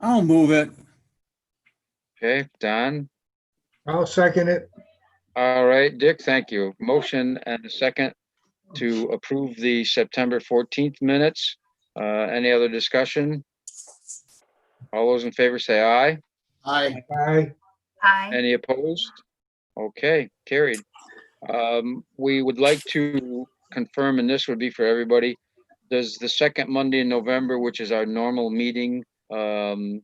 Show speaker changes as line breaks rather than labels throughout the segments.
I'll move it.
Okay, Don.
I'll second it.
All right, Dick, thank you. Motion and a second to approve the September 14th minutes. Uh, Any other discussion? All those in favor say aye.
Aye.
Aye.
Aye.
Any opposed? Okay, carried. Um, We would like to confirm, and this would be for everybody, does the second Monday in November, which is our normal meeting, um,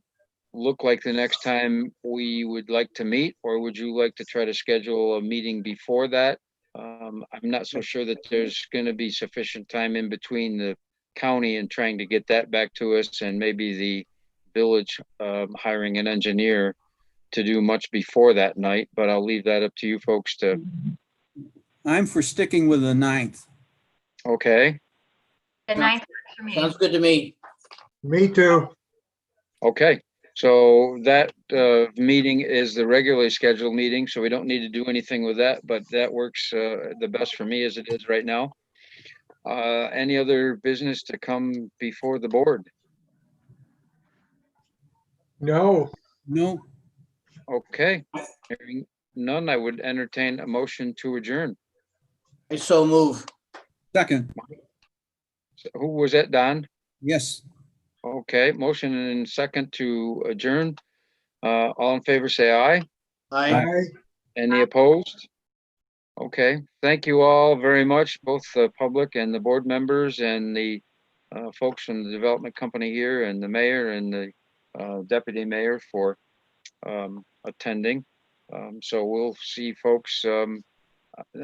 look like the next time we would like to meet? Or would you like to try to schedule a meeting before that? Um, I'm not so sure that there's going to be sufficient time in between the county and trying to get that back to us and maybe the village um, hiring an engineer to do much before that night, but I'll leave that up to you folks to,
I'm for sticking with the ninth.
okay,
The ninth works for me.
Sounds good to me.
Me too.
okay. So that uh meeting is the regularly scheduled meeting, so we don't need to do anything with that, but that works uh the best for me as it is right now. Uh, any other business to come before the board?
No,
No,
Okay. Hearing None, I would entertain a motion to adjourn.
I so move.
second,
So Who was that, Don?
yes.
Okay, motion and second to adjourn. Uh, all in favor, say aye.
Aye.
aye.
Any opposed? Okay, thank you all very much, both the public and the board members and the uh, folks from the development company here and the mayor and the uh, deputy mayor for um, attending. Um, So we'll see folks um,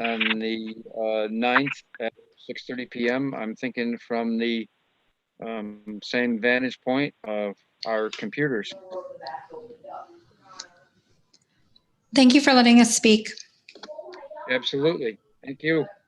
on the uh, 9th at 6:30 PM. I'm thinking from the um, same vantage point of our computers.
Thank you for letting us speak.
Absolutely. Thank you.